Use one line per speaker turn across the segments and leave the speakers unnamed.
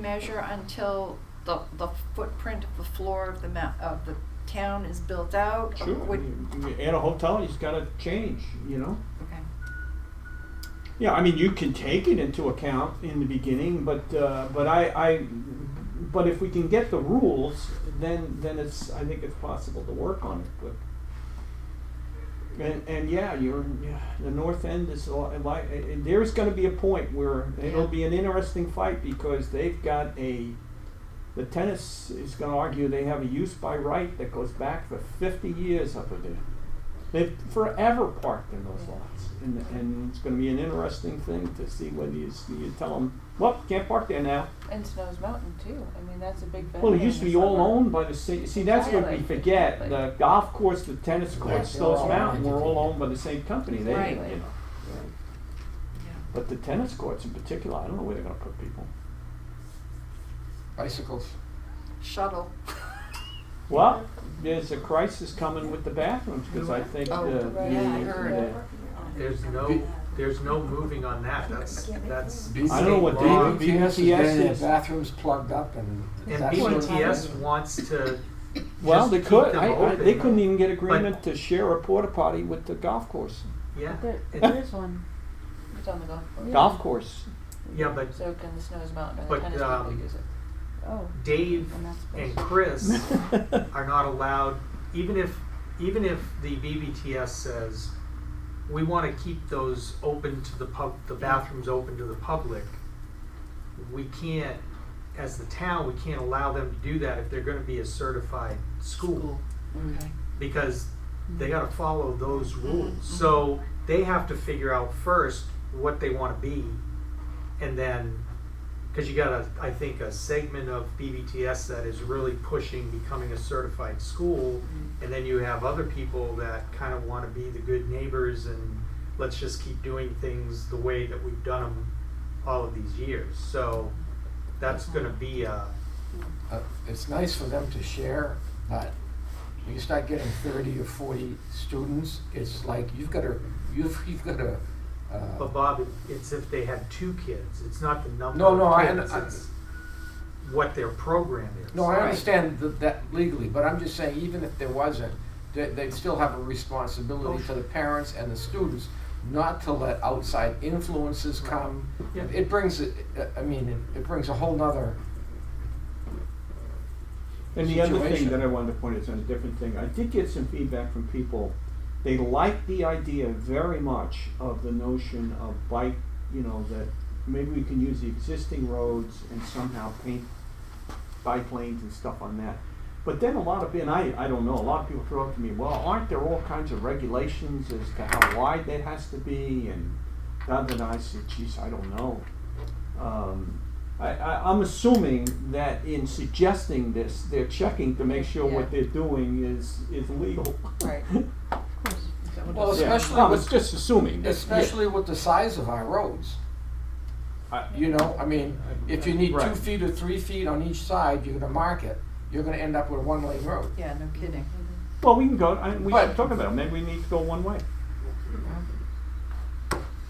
measure until the, the footprint of the floor of the ma- of the town is built out? Or
Sure,
would-
you- you add a hotel, you just gotta change, you know?
Okay,
Yeah, I mean, you can take it into account in the beginning, but, uh, but I, I, but if we can get the rules, then, then it's, I think it's possible to work on it, but. And, and yeah, you're, yeah, the north end is a lot, like, eh, eh, there's gonna be a point where it'll
Yeah.
be an interesting fight, because they've got a, the tennis is gonna argue they have a use by right that goes back for fifty years up there. They've forever parked in those lots, and, and it's gonna be an interesting thing to see whether you, s- you tell them, well, can't park there now.
And Snow's Mountain too. I mean, that's a big benefit.
Well, it used to be all owned by the city, see, that's what we
Exactly.
forget, the
Exactly.
golf course, the tennis courts,
they're all
those mountain were all
entity.
owned by the same company, they,
Right.
you know.
yeah.
But the tennis courts in particular, I don't know where they're gonna put people.
Bicycles.
Shuttle.
Well, there's a crisis coming with the bathrooms, cause I think uh, the.
Oh,
Right.
yeah, I
the-
heard.
There's no, there's no moving on that, that's, that's.
B-
I don't know what
state law.
they-
BTS has been in
BTS is-
bathrooms plugged up and
And
that sort of
BTS
thing.
wants to.
Well,
just
they
keep
could,
them
I, I, they
open.
couldn't even get agreement to share a porta potty with the golf course,
Yeah,
There,
it-
there is one. It's on the golf course.
golf course.
yeah, but
So can the Snow's Mountain or
But,
the tennis
um,
people use it? Oh,
Dave
and that's.
and
supposed-
Chris are not allowed, even if, even if the BBTS says, we wanna keep those open to the pub, the bathrooms open to the public, we can't, as the town, we can't allow them to do that if they're gonna be a certified school.
Okay.
because they got to follow those rules. So they have to figure out first what they want to be, and then because you got a, I think a segment of BBTS that is really pushing becoming a certified school, and then you have other people that kind of want to be the good neighbors and let's just keep doing things the way that we've done them all of these years.
oh.
So that's going to be a
Uh, It's nice for them to share, but when you start getting thirty or forty students, it's like you've got to, you've, you've uh, got to.
But Bob, it- it's if they had two kids, it's not the number
No, no,
of
I
kids,
under- I-
it's what their program is.
No, I
Right.
understand th- that legally, but I'm just saying, even if there wasn't, they, they'd still have a responsibility
Oh,
to the parents and the students not to let outside influences come.
Yeah.
It brings, it- I mean, it- it brings a whole nother,
And the other thing
situation.
that I wanted to point is on a different thing. I did get some feedback from people. They like the idea very much of the notion of bike, you know, that maybe we can use the existing roads and somehow paint bike lanes and stuff on that. But then a lot of, and I, I don't know, a lot of people throw up to me, well, aren't there all kinds of regulations as to how wide that has to be and da da da. I said, geez, I don't know. Um, I, I, I'm assuming that in suggesting this, they're checking to make sure what
Yeah.
they're doing is, is legal.
Right.
well,
Yeah.
especially
No, it's
with,
just assuming. that-
especially with the size of our roads.
I-
You know, I mean, if you need two
Right.
feet or three feet on each side, you're gonna mark it, you're gonna end up with a one-lane road.
Yeah, no kidding.
Mm-hmm.
Well, we can go, I, we
But-
should talk about it, maybe we need to go one way.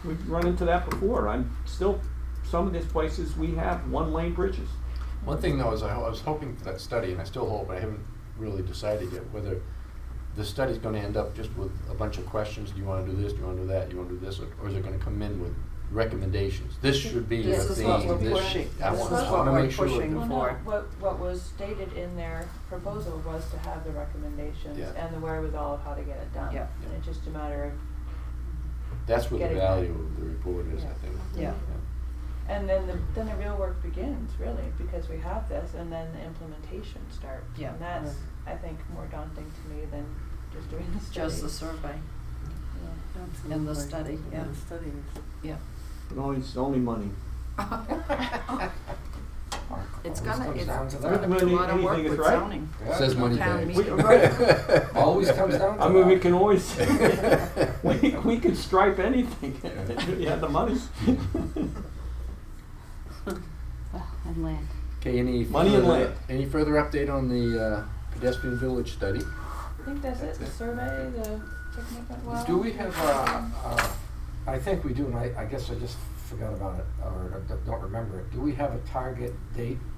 We've run into that before, I'm still, some of these places, we have one-lane bridges.
One thing though is I, ho- I was hoping for that study, and I still hope, but I haven't really decided yet whether the study's gonna end up just with a bunch of questions, do you wanna do this, do you wanna do that, do you wanna do this, or- or is it gonna come in with recommendations? This should be your
This is
theme,
what we're
this,
pushing.
I
This
want,
is
I
what
wanna
we're
make sure.
pushing.
that-
Well, no,
before.
what, what was stated in their proposal was to have the recommendations
Yeah.
and the wherewithal of how to get it done.
Yeah.
And it's just a matter of,
That's what the
Getting-
value of the report is, I
Yeah.
think.
Yeah.
and then the, then the real work begins, really, because we have this, and then the implementation starts.
Yeah.
And that's, I think, more daunting to me than just doing the study.
Just the survey
Yeah.
and the study, yeah. Yeah.
It only, it's only money.
It's
Always
gonna-
comes
it's-
down to
Really?
A lot of
that.
Anything
work
is
with
right?
zoning.
Yeah.
Says money
Town
bags.
meeting.
Always comes down to
I mean, we
that.
can always, we, we could stripe anything, if we had the money.
and land.
Okay, any
Money and
further,
land.
any further update on the uh, pedestrian village study?
I think that's it, the survey, the, checking up on- well.
Do we have, uh, uh, I think we do, and I, I guess I just
forgot about it, or don't remember it, do we have a target date